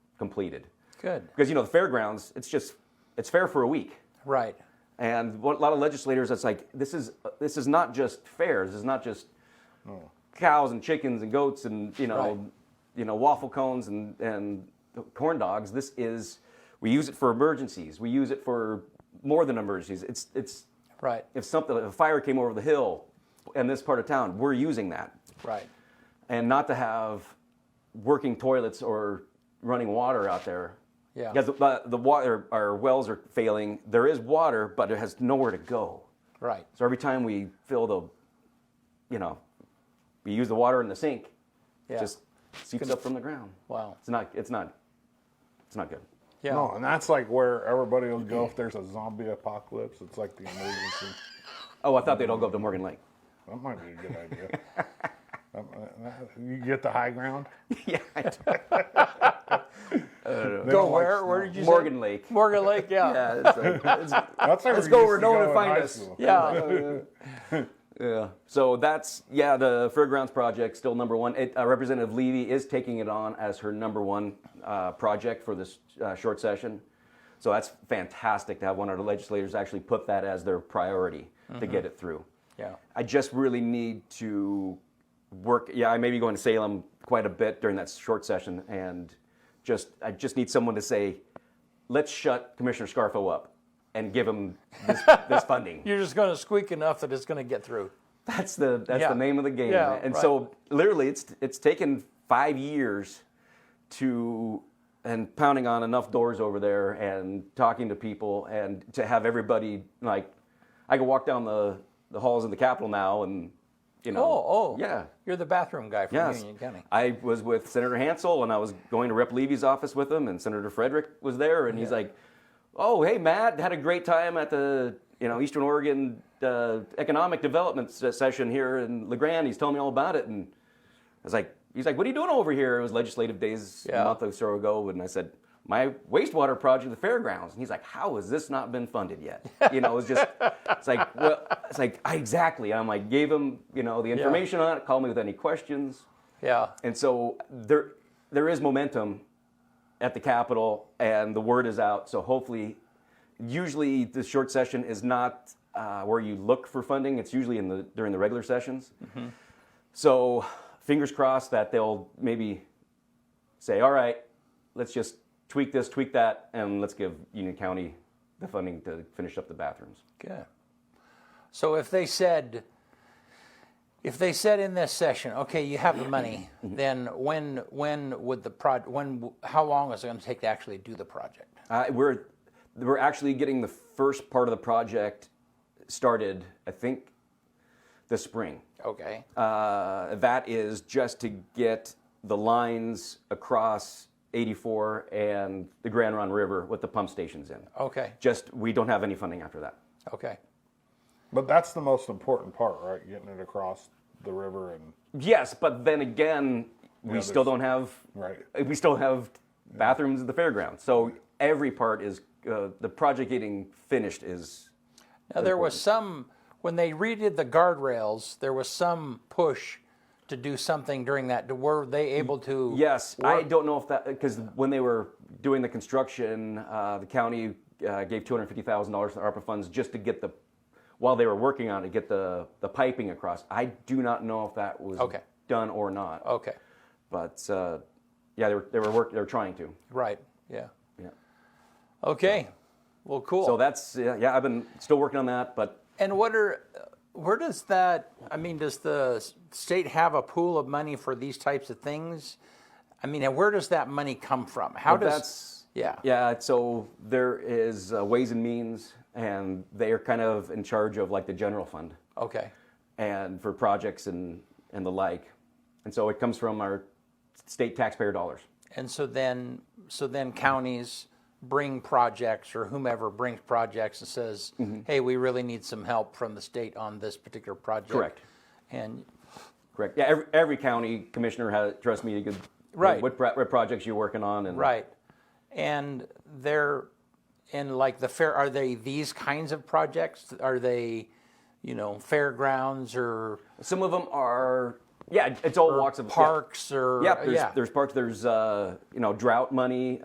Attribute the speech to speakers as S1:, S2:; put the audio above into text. S1: completed.
S2: Good.
S1: Because you know the fairgrounds, it's just it's fair for a week,
S2: Right.
S1: and what, a lot of legislators, it's like this is this is not just fair. This is not just cows and chickens and goats and you know
S2: Right.
S1: you know waffle cones and and corn dogs. This is we use it for emergencies. We use it for more than emergencies. It's it's
S2: Right.
S1: if something if a fire came over the hill in this part of town, we're using that
S2: Right.
S1: and not to have working toilets or running water out there.
S2: Yeah.
S1: Because the, the water, our wells are failing. There is water, but it has nowhere to go.
S2: Right.
S1: So every time we fill the, you know, we use the water in the sink,
S2: Yeah.
S1: it just seeps up from the ground.
S2: Wow.
S1: It's not, it's not, it's not good.
S2: Yeah.
S3: No, and that's like where everybody will go
S1: Mm-hmm.
S3: if there's a zombie apocalypse. It's like the emergency.
S1: Oh, I thought they'd all go up to Morgan Lake.
S3: that might be a good idea. Um, uh, uh, you get the high ground.
S1: yeah. I do.
S3: They
S2: Go
S3: don't like
S2: where?
S3: snow.
S2: where did you say?
S1: Morgan Lake.
S2: Morgan Lake. Yeah.
S1: Yeah, it's like- it's-
S3: That's
S1: Let's go where no one will find us.
S2: Yeah.
S1: Yeah. So that's yeah the fairgrounds project still number one. It, uh, Representative Levy is taking it on as her number one uh, project for this uh, short session. So that's fantastic to have one of the legislators actually put that as their priority to get it through.
S2: Yeah.
S1: I just really need to work. Yeah, I may be going to Salem quite a bit during that short session, and just I just need someone to say, let's shut Commissioner Scarfo up and give him this, this funding.
S2: You're just going to squeak enough that it's going to get through.
S1: That's the that's
S2: Yeah.
S1: the name of the game.
S2: Yeah,
S1: and
S2: right.
S1: so literally it's it's taken 5 years to and pounding on enough doors over there and talking to people and to have everybody like I can walk down the the halls of the Capitol now and you know
S2: Oh, oh.
S1: yeah.
S2: You're the bathroom guy from
S1: Yes.
S2: Union County.
S1: I was with Senator Hansel and I was going to Rep Levy's office with him and Senator Frederick was there and he's like, "Oh, hey Matt, had a great time at the, you know, Eastern Oregon uh, economic development se- session here in LeGrand. He's telling me all about it." And I was like, he's like, "What are you doing over here?" It was legislative days
S2: Yeah.
S1: a month or so ago and I said, "My wastewater project at the fairgrounds." And he's like, "How has this not been funded yet?" You know, it's just it's like, well, it's like, I, "Exactly." And I'm like, gave him, you know, the information on it, call me with any questions.
S2: Yeah.
S1: And so there, there is momentum at the Capitol, and the word is out. So hopefully, usually the short session is not uh, where you look for funding. It's usually in the during the regular sessions. So fingers crossed that they'll maybe say, all right, let's just tweak this, tweak that, and let's give Union County the funding to finish up the bathrooms.
S2: Good. So if they said, if they said in this session, okay, you have the money,
S1: Mm-hmm.
S2: then when when would the project? When w- how long is it going to take to actually do the project?
S1: Uh, we're we're actually getting the first part of the project started. I think this spring.
S2: Okay.
S1: Uh, that is just to get the lines across 84 and the Grand Ron River with the pump stations in.
S3: Oh.
S2: Okay.
S1: Just we don't have any funding after that.
S2: Okay.
S3: But that's the most important part, right? Getting it across the river and
S1: Yes, but then again, we
S3: Yeah,
S1: still
S3: there's-
S1: don't have uh,
S3: Right.
S1: We still have bathrooms at the fairground. So every part is uh, the project getting finished is
S2: Now there was some when they redid the guardrails. There was some push to do something during that. To- Were they able to?
S1: Yes, I don't know if that because when they were doing the construction, uh, the county uh, gave two hundred fifty thousand dollars to ARPA funds just to get the while they were working on it, get the the piping across. I do not know if that was
S2: Okay. Oh.
S1: done or not.
S2: Okay.
S1: But uh, yeah, they were they were work, they were trying to.
S2: Right. Yeah.
S1: Yeah.
S2: Okay. Well, cool.
S1: So that's yeah, yeah. I've been still working on that, but
S2: And what are, uh, where does that, I mean, does the s- state have a pool of money for these types of things? I mean, and where does that money come from? How
S1: Well,
S2: does,
S1: that's
S2: yeah.
S1: yeah so there is uh, ways and means and they are kind of in charge of like the general fund
S2: okay,
S1: and for projects and, and the like. And so it comes from our state taxpayer dollars.
S2: and so then, so then counties bring projects or whomever brings projects and says,
S1: Mm-hmm.
S2: hey, we really need some help from the state on this particular project.
S1: Correct.
S2: And,
S1: Correct. Yeah, every, every county commissioner has trust me. You could
S2: Right.
S1: What, pro- what projects you're working on and
S2: right, and they're, and like the fair, are they these kinds of projects? Are they, you know, fairgrounds or
S1: Some of them are yeah. It's all walks of yeah.
S2: parks or
S1: Yeah, there's, there's parks. There's uh, you know drought money.